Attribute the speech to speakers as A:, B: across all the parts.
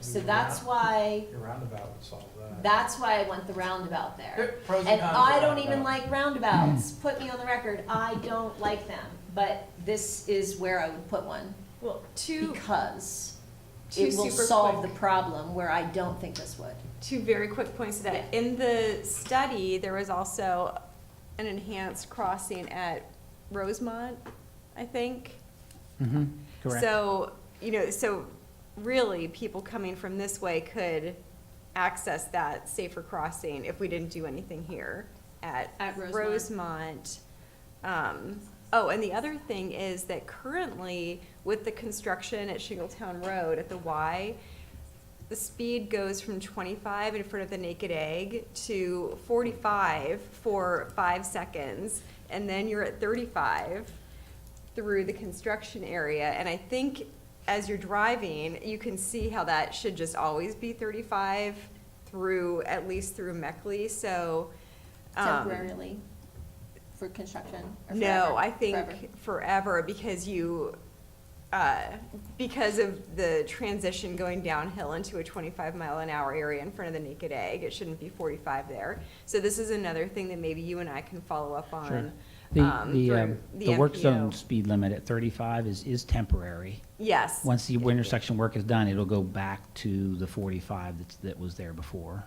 A: so that's why,
B: Your roundabout would solve that.
A: that's why I want the roundabout uh, there.
B: Pros
A: And
B: cons
A: I
B: of
A: don't even
B: roundabout.
A: like roundabouts, put me on the record, I don't like them, but this is where I would put one,
C: Well, two,
A: because
C: two
A: it will
C: super
A: solve the
C: quick-
A: problem where I don't think this would.
C: two very quick points to that. In the study, there was also an enhanced crossing at Rosemont, I think.
D: Mm-hmm, correct.
C: So, you know, so really, people coming from this way could access that safer crossing if we didn't do anything here at
A: At
C: Rosemont. Um, Oh, and the other thing is that currently, with the construction at Shingletown Road at the Y, the speed goes from twenty-five in front of the Naked Egg to forty-five for five seconds, and then you're at thirty-five through the construction area, and I think as you're driving, you can see how that should just always be thirty-five through, at least through Meckley, so. um,
A: Temporarily, for construction, or forever,
C: no, I
A: forever.
C: think forever because you, uh, because of the transition going downhill into a twenty-five mile an hour area in front of the Naked Egg, it shouldn't be forty-five there. So this is another thing that maybe you and I can follow up
D: Sure.
C: on.
D: The,
C: um,
D: the,
C: through
D: um,
C: the
D: the work
C: MPO.
D: zone speed limit at thirty-five is, is temporary.
C: Yes,
D: Once the intersection work is done, it'll go back to the forty-five that's, that was there before.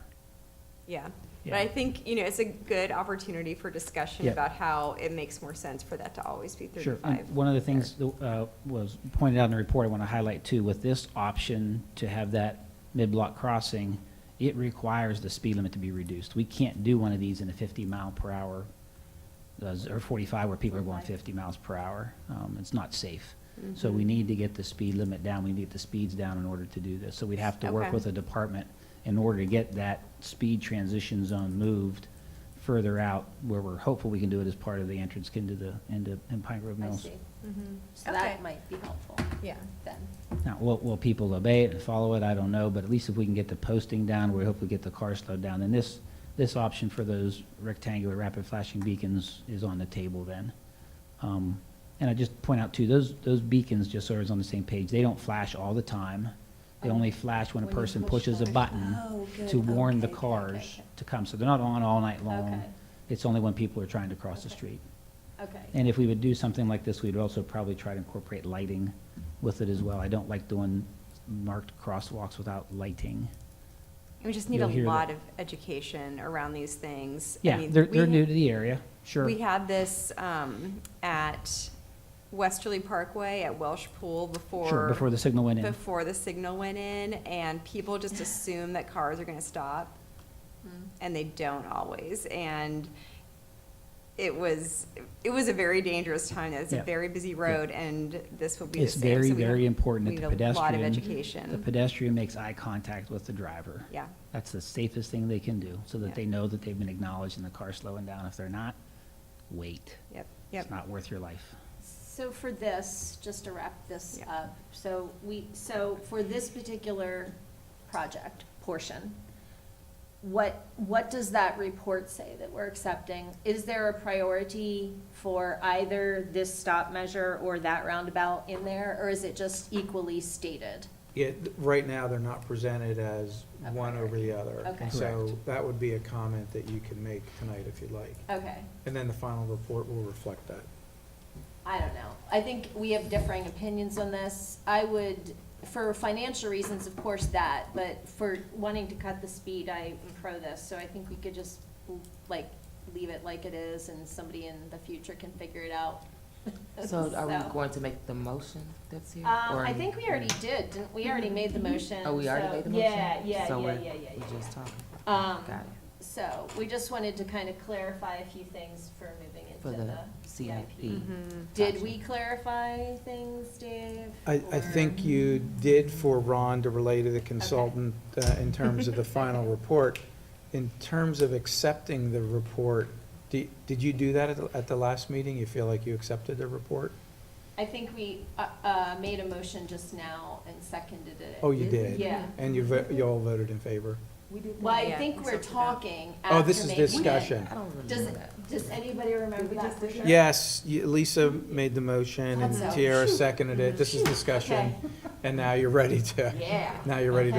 C: yeah. But
D: Yeah.
C: I think, you know, it's a good opportunity for discussion
D: Yeah.
C: about how it makes more sense for that to always be
D: Sure. And
C: thirty-five.
D: One of the things that uh, was pointed out in the report, I want to highlight too, with this option to have that mid-block crossing, it requires the speed limit to be reduced. We can't do one of these in a 50 mile per hour, uh, or 45 where people are going 50 miles per hour. Um, It's not safe. So
C: Mm-hmm.
D: we need to get the speed limit down. We need the speeds down in order to do this. So we'd have to work
C: Okay.
D: with a department in order to get that speed transition zone moved further out where we're hopeful we can do it as part of the entrance into the, into in Pine Grove
A: I
D: Mills.
A: see,
C: Mhm.
A: so
C: Okay.
A: that might be helpful
C: Yeah.
A: then.
D: Now, will, will people obey it and follow it? I don't know, but at least if we can get the posting down, we hopefully get the car slowed down, then this, this option for those rectangular rapid flashing beacons is on the table then. Um, and I just point out too, those, those beacons, just so everyone's on the same page, they don't flash all the time. They only flash when a
A: When you
D: person
A: push
D: pushes a
A: the-
D: button
A: Oh, good.
D: to warn the
A: Okay, okay, okay,
D: cars to come, so they're not on all night long.
A: Okay.
D: It's only when people are trying to cross the
A: Okay.
D: street.
A: Okay.
D: And if we would do something like this, we'd also probably try to incorporate lighting with it as well. I don't like doing marked crosswalks without lighting.
C: We just need a
D: You'll hear that.
C: lot of education around these things. I
D: Yeah,
C: mean,
D: they're,
C: we
D: they're
C: ha-
D: new to the area, sure.
C: We had this um, at Westerly Parkway at Welsh Pool before.
D: Sure, before the signal went in.
C: before the signal went in, and people just assume that cars are gonna stop, and they don't always. And it was, it was a very dangerous time. It's a
D: Yeah.
C: very busy road, and this will be the
D: It's
C: same.
D: very,
C: So we
D: very
C: have-
D: important
C: we
D: that the
C: need a lot of
D: pedestrian. The
C: education.
D: pedestrian makes eye contact with the driver.
C: Yeah.
D: That's the safest thing they can do, so
C: Yeah.
D: that they know that they've been acknowledged and the car's slowing down. If they're not, wait.
C: Yep,
D: It's
C: yep.
D: not worth your life.
A: So for this, just to wrap this
C: Yeah.
A: up, so we, so for this particular project portion, what, what does that report say that we're accepting? Is there a priority for either this stop measure or that roundabout in there, or is it just equally stated?
B: Yeah, th- right now, they're not presented as
A: A
B: one over the other.
A: Okay.
B: So
D: Correct.
B: that would be a comment that you can make tonight if you'd like.
A: Okay,
B: And then the final report will reflect that.
A: I don't know. I think we have differing opinions on this. I would, for financial reasons, of course, that, but for wanting to cut the speed, I am pro this. So I think we could just, like, leave it like it is and somebody in the future can figure it out.
E: So are we going to make the motion that's here?
A: Um,
E: or-
A: I think we already did, didn't, we already made the motion.
E: Oh, we already
A: so-
E: made the motion?
A: Yeah, yeah,
E: So
A: yeah,
E: we're-
A: yeah, yeah,
E: we
A: yeah,
E: just talking,
A: yeah. Um,
E: got it,
A: so we just wanted to kind of clarify a few things for moving
E: for
A: into
E: the
A: the CIP.
E: CIP.
A: Did we clarify things, Dave?
B: I, I think you did for Ron to relay to the consultant uh, in terms of the final report. In terms of accepting the report, di- did you do that at the- at the last meeting? You feel like you accepted the report?
A: I think we, uh, uh, made a motion just now and seconded it.
B: Oh, you did?
A: Yeah.
B: And you, vo- you all voted in favor?
A: Well, I
C: Yeah,
A: think
C: we
A: we're
C: sorted that.
A: talking after
B: Oh, this is
A: making it.
B: discussion.
E: I don't really
A: Does,
E: know that.
A: does anybody remember that? for sure?
B: Yes, you- Lisa made the motion and
A: Thought so.
B: Tiara seconded it. This is discussion. And now you're ready to,
A: Yeah.
B: now you're ready to